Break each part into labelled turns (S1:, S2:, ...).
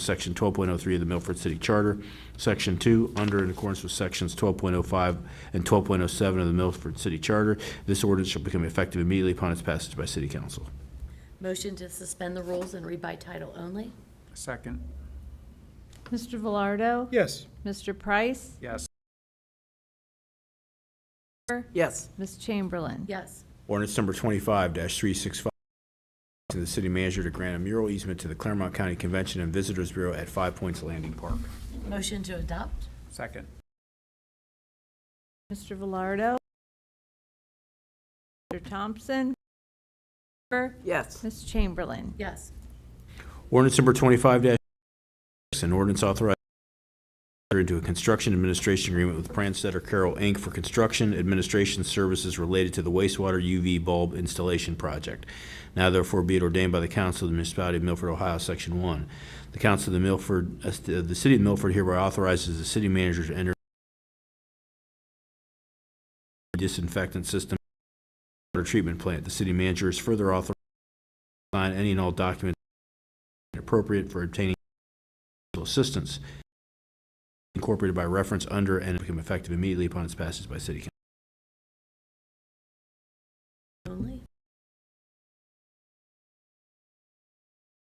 S1: Section 12.03 of the Milford City Charter. Section 2, under in accordance with Sections 12.05 and 12.07 of the Milford City Charter, this ordinance shall become effective immediately upon its passage by City Council.
S2: Motion to suspend the rules and read by title only?
S3: Second.
S4: Mr. Velardo?
S3: Yes.
S4: Mr. Price?
S3: Yes.
S5: yes,
S4: Ms. Chamberlain?
S2: Yes.
S1: Ordinance number 25-365, to the city manager to grant a mural easement to the Claremont County Convention and Visitors Bureau at Five Points Landing Park.
S2: Motion to adopt?
S3: Second.
S4: Mr. Velardo? Mr. Thompson?
S5: yes,
S4: Ms. Chamberlain?
S2: Yes.
S1: Ordinance number 25-6, an ordinance authorizing enter into a construction administration agreement with Pranstetter Carroll, Inc. for construction administration services related to the wastewater UV bulb installation project. Now therefore be it ordained by the Council of the Municipality of Milford, Ohio, Section 1. The Council of the Milford, uh, the City of Milford hereby authorizes the city manager to enter disinfectant system water treatment plant. The city manager is further authorized to sign any and all documents appropriate for obtaining assistance incorporated by reference under and become effective immediately upon its passage by city council.
S2: Only?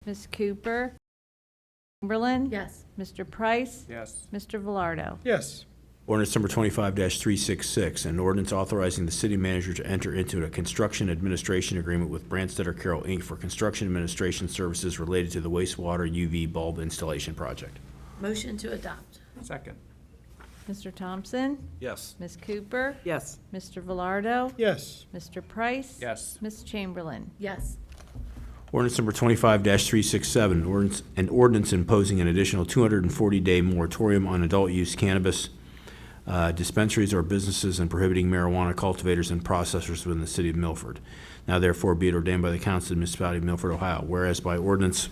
S4: Ms. Cooper? Chamberlain?
S2: Yes.
S4: Mr. Price?
S3: Yes.
S4: Mr. Velardo?
S3: Yes.
S1: Ordinance number twenty-five three six six, an ordinance authorizing the city manager to enter into a construction administration agreement with Branstetter Carroll Inc. for construction administration services related to the wastewater UV bulb installation project.
S2: Motion to adopt?
S3: Second.
S4: Mr. Thompson?
S3: Yes.
S4: Ms. Cooper?
S5: yes,
S4: Mr. Velardo?
S3: Yes.
S4: Mr. Price?
S3: Yes.
S4: Ms. Chamberlain?
S2: Yes.
S1: Ordinance number twenty-five three six seven, ordinance, an ordinance imposing an additional two hundred and forty-day moratorium on adult-use cannabis uh, dispensaries or businesses and prohibiting marijuana cultivators and processors within the city of Milford. Now therefore be it ordained by the Council of the Municipality of Milford, Ohio, whereas by ordinance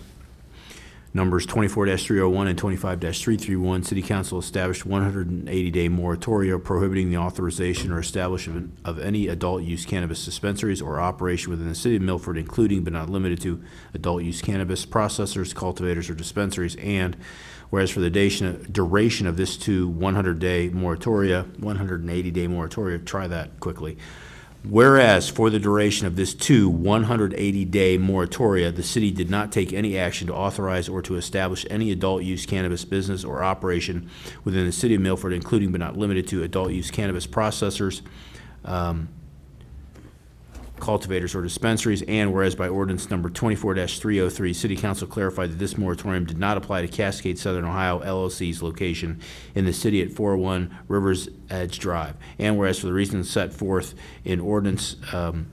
S1: numbers twenty-four three oh one and twenty-five three three one, City Council established one hundred and eighty-day moratorium prohibiting the authorization or establishment of any adult-use cannabis dispensaries or operation within the city of Milford, including but not limited to adult-use cannabis processors, cultivators, or dispensaries, and whereas for the dation- duration of this two one hundred-day moratoria, one hundred and eighty-day moratoria, try that quickly, Whereas for the duration of this two 180-day moratoria, the city did not take any action to authorize or to establish any adult-use cannabis business or operation within the city of Milford, including but not limited to adult-use cannabis processors, um, cultivators, or dispensaries, and whereas by ordinance number 24-303, City Council clarified that this moratorium did not apply to Cascade Southern Ohio LLC's location in the city at 401 Rivers Edge Drive, and whereas for the reasons set forth in ordinance um,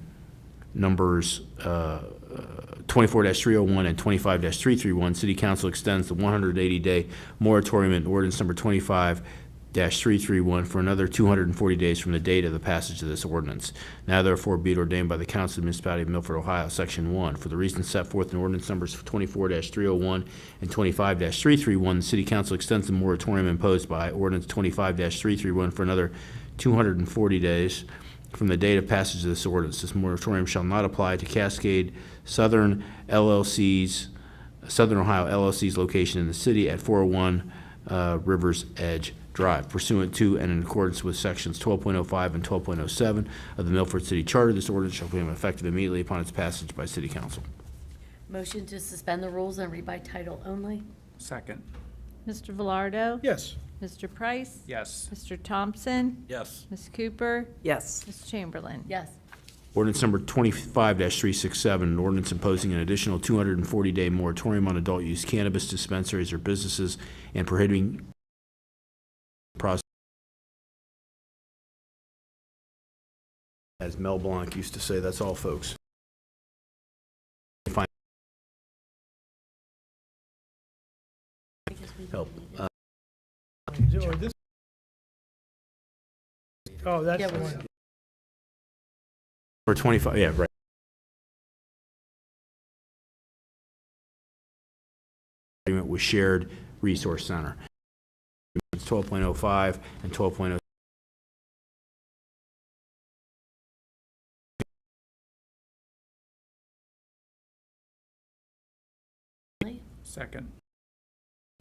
S1: numbers uh, 24-301 and 25-331, City Council extends the 180-day moratorium in ordinance number 25-331 for another 240 days from the date of the passage of this ordinance. Now therefore be it ordained by the Council of the Municipality of Milford, Ohio, Section 1, for the reasons set forth in ordinance numbers 24-301 and 25-331, the City Council extends the moratorium imposed by ordinance 25-331 for another 240 days from the date of passage of this ordinance. This moratorium shall not apply to Cascade Southern LLC's, Southern Ohio LLC's location in the city at 401 uh, Rivers Edge Drive pursuant to and in accordance with Sections 12.05 and 12.07 of the Milford City Charter. This ordinance shall become effective immediately upon its passage by city council.
S2: Motion to suspend the rules and read by title only?
S3: Second.
S4: Mr. Velardo?
S3: Yes.
S4: Mr. Price?
S3: Yes.
S4: Mr. Thompson?
S3: Yes.
S4: Ms. Cooper?
S5: yes,
S4: Ms. Chamberlain?
S2: Yes.
S1: Ordinance number twenty-five three six seven, an ordinance imposing an additional two hundred and forty day moratorium on adult-use cannabis dispensaries or businesses and prohibiting process as Mel Blanc used to say, that's all, folks. Fin- Help. Uh,
S6: Or this- Oh, that's,
S2: Yeah,
S6: the
S2: we-
S6: one.
S1: Or 25, yeah, right. Agreement with Shared Resource Center. It's 12.05 and 12.0.
S3: Second.